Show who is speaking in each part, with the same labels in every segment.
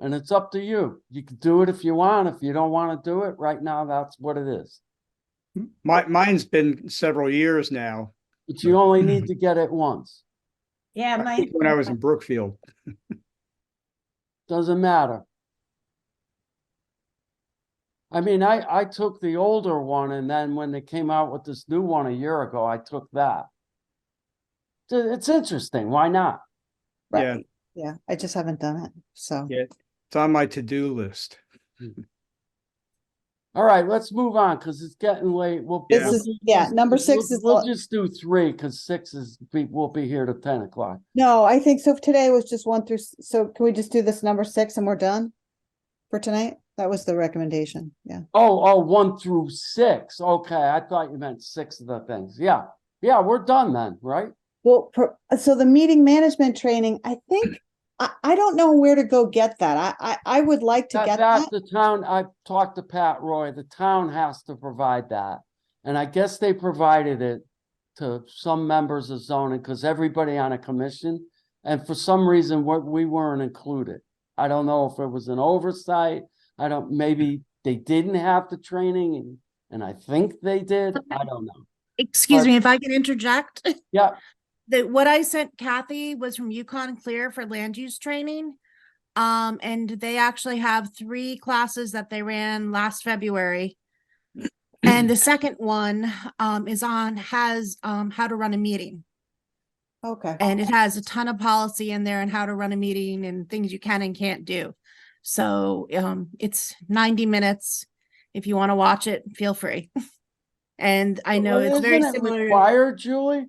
Speaker 1: And it's up to you. You can do it if you want. If you don't want to do it right now, that's what it is.
Speaker 2: M- My, mine's been several years now,
Speaker 1: But you only need to get it once.
Speaker 3: Yeah,
Speaker 2: I
Speaker 3: my,
Speaker 2: think when I was in Brookfield.
Speaker 1: Doesn't matter. I mean, I, I took the older one and then when they came out with this new one a year ago, I took that. Th- It's interesting. Why not?
Speaker 3: Right.
Speaker 2: Yeah,
Speaker 3: yeah, I just haven't done it, so.
Speaker 2: Yeah. it's on my to-do list.
Speaker 1: All right, let's move on because it's getting late. We'll.
Speaker 3: This is, yeah, number
Speaker 1: we'll-
Speaker 3: six is,
Speaker 1: We'll just do three because six is, we, we'll be here to ten o'clock.
Speaker 3: no, I think so today was just one through, s- so can we just do this number six and we're done? For tonight? That was the recommendation, yeah.
Speaker 1: Oh, oh, one through six. Okay, I thought you meant six of the things. Yeah, yeah, we're done then, right?
Speaker 3: Well, per- so the meeting management training, I think, I, I don't know where to go get that. I, I, I would like to
Speaker 1: That,
Speaker 3: get
Speaker 1: that,
Speaker 3: that.
Speaker 1: the town, I talked to Pat Roy, the town has to provide that. And I guess they provided it to some members of zoning, because everybody on a commission, and for some reason, what, we weren't included. I don't know if it was an oversight, I don't, maybe they didn't have the training, and, and I think they did, I don't know.
Speaker 4: Excuse
Speaker 1: But-
Speaker 4: me, if I can interject?
Speaker 1: Yeah.
Speaker 4: That what I sent Kathy was from Yukon Clear for land use training. Um, and they actually have three classes that they ran last February. And the second one, um, is on, has, um, how to run a meeting.
Speaker 3: Okay,
Speaker 4: And it has a ton of policy in there and how to run a meeting and things you can and can't do. So um, it's ninety minutes. If you want to watch it, feel free. And I know it's very
Speaker 1: Isn't it
Speaker 4: similar.
Speaker 1: Required, Julie?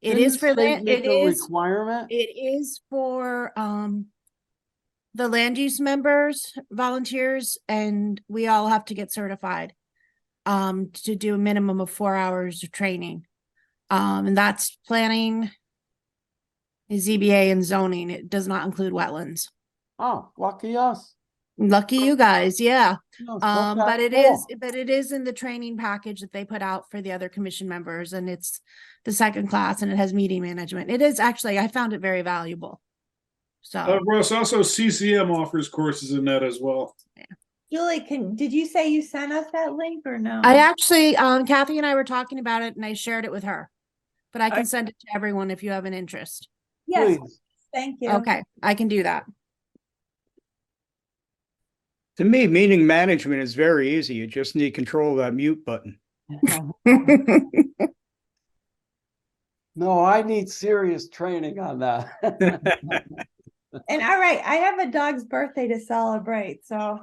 Speaker 4: It
Speaker 1: Didn't
Speaker 4: is
Speaker 1: the
Speaker 4: for,
Speaker 1: state
Speaker 4: land.
Speaker 1: make
Speaker 4: it
Speaker 1: a
Speaker 4: is,
Speaker 1: Requirement?
Speaker 4: it is for um the land use members, volunteers, and we all have to get certified um to do a minimum of four hours of training. Um, and that's planning ZBA and zoning. It does not include wetlands.
Speaker 1: Oh, lucky us.
Speaker 4: Lucky you guys, yeah.
Speaker 1: No,
Speaker 4: Um,
Speaker 1: okay,
Speaker 4: but it
Speaker 1: cool.
Speaker 4: is, but it is in the training package that they put out for the other commission members and it's the second class and it has meeting management. It is actually, I found it very valuable.
Speaker 5: Uh,
Speaker 4: So,
Speaker 5: Russ, also CCM offers courses in that as well.
Speaker 6: Julie, can, did you say you sent us that link or no?
Speaker 4: I actually, um, Kathy and I were talking about it and I shared it with her. But I can send it to everyone if you have an interest.
Speaker 6: Yes,
Speaker 1: Please.
Speaker 6: thank you.
Speaker 4: Okay, I can do that.
Speaker 2: To me, meeting management is very easy. You just need control of that mute button.
Speaker 1: No, I need serious training on that.
Speaker 6: And all right, I have a dog's birthday to celebrate, so.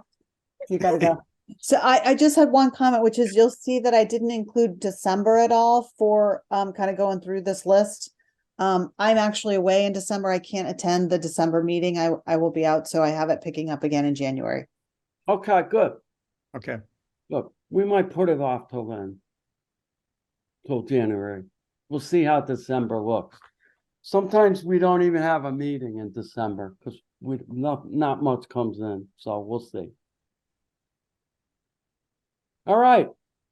Speaker 3: you gotta go. So I, I just had one comment, which is you'll see that I didn't include December at all for, um, kind of going through this list. Um, I'm actually away in December. I can't attend the December meeting. I, I will be out, so I have it picking up again in January.
Speaker 1: Okay, good.
Speaker 2: Okay,
Speaker 1: Look, we might put it off till then. Till January. We'll see how December looks. Sometimes we don't even have a meeting in December because we, not, not much comes in, so we'll see. All right.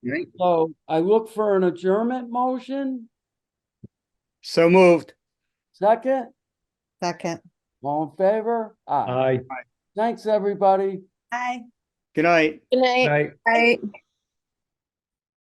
Speaker 2: Right.
Speaker 1: So I look for an adjournment motion,
Speaker 2: so moved.
Speaker 1: second,
Speaker 3: Second.
Speaker 1: all in favor? Aye. Thanks, everybody.
Speaker 6: Bye.
Speaker 2: Good night.
Speaker 4: Good night. Right.